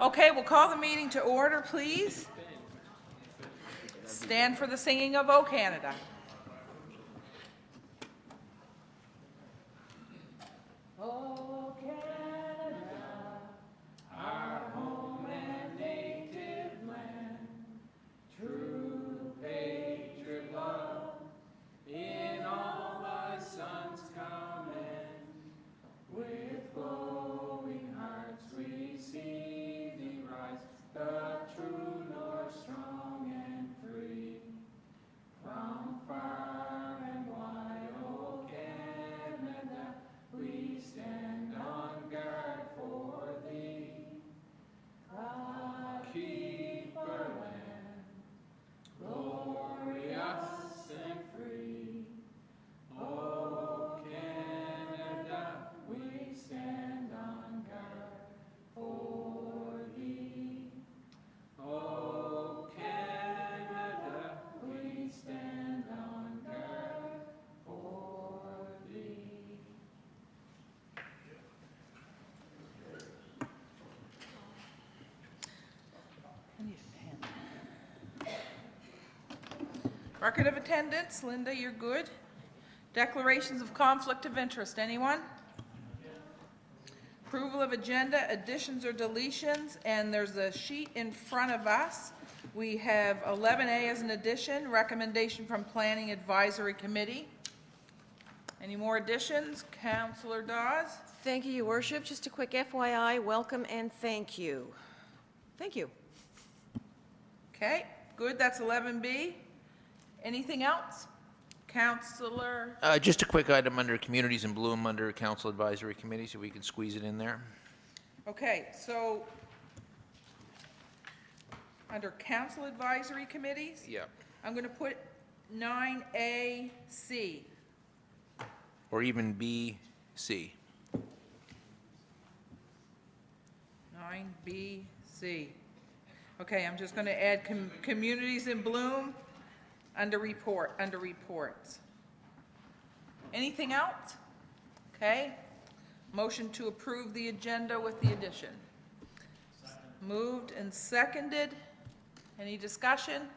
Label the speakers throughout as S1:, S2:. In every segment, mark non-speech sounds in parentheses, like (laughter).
S1: Okay, we'll call the meeting to order, please. Stand for the singing of O Canada. Record of attendance, Linda, you're good. Declarations of conflict of interest, anyone? Approval of agenda, additions or deletions, and there's a sheet in front of us. We have 11A as an addition, recommendation from Planning Advisory Committee. Any more additions? Counselor Dawes?
S2: Thank you, Your Worship. Just a quick FYI, welcome and thank you. Thank you.
S1: Okay, good, that's 11B. Anything else? Counselor,
S3: Uh, Just a quick item under Communities in Bloom, under Council Advisory Committee, so we can squeeze it in there.
S1: okay, so under council advisory committees,
S3: Yeah.
S1: I'm going to put 9AC.
S3: Or even B, C.
S1: 9BC. Okay, I'm just going to add com- communities in bloom under report, under reports. Anything else? Okay. Motion to approve the agenda with the addition. Moved and seconded. Any discussion?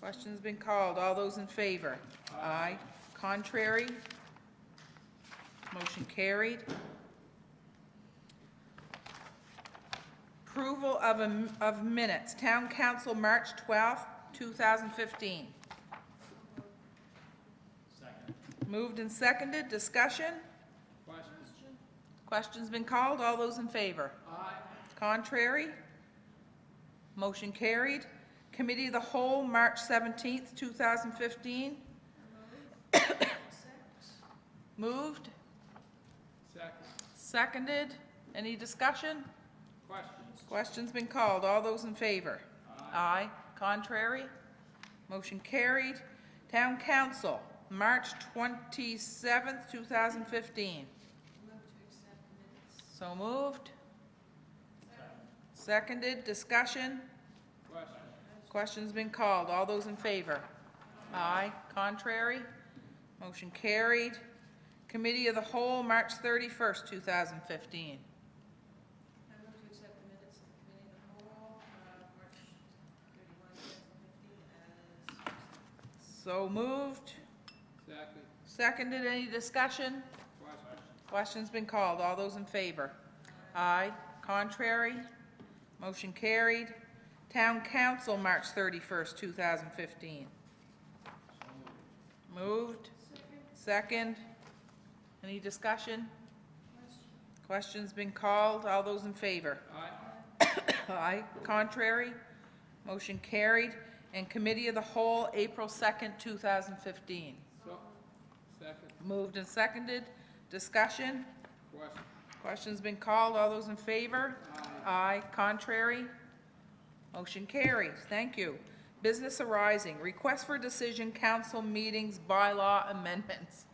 S1: Question's been called. All those in favor? Aye. Contrary? Motion carried. Approval of, am- of minutes, Town Council, March 12th, 2015. Moved and seconded, discussion? Question's been called, all those in favor? Aye. Contrary? Motion carried. Committee of the Whole, March 17th, 2015. (coughs) Moved? Second. Seconded, any discussion? Question's been called. All those in favor? Aye. Contrary? Motion carried. Town Council, March 27th, 2015. So moved. Seconded. Discussion? Question's been called. All those in favor? Aye. Contrary? Motion carried. Committee of the Whole, March 31st, 2015. So moved. Second. Seconded, any discussion? Question's been called, all those in favor? Aye. Contrary? Motion carried. Town Council, March thirty-first, two thousand fifteen. Moved. Second. Any discussion? Question's been called, all those in favor? Aye. Contrary? Motion carried. And Committee of the Whole, April 2nd, 2015.
S4: Second,
S1: Moved and seconded. Discussion?
S4: question,
S1: Question's been called. All those in favor? Aye. Contrary? Motion carries. Thank you. Business arising. Request for decision, council meetings, bylaw amendments.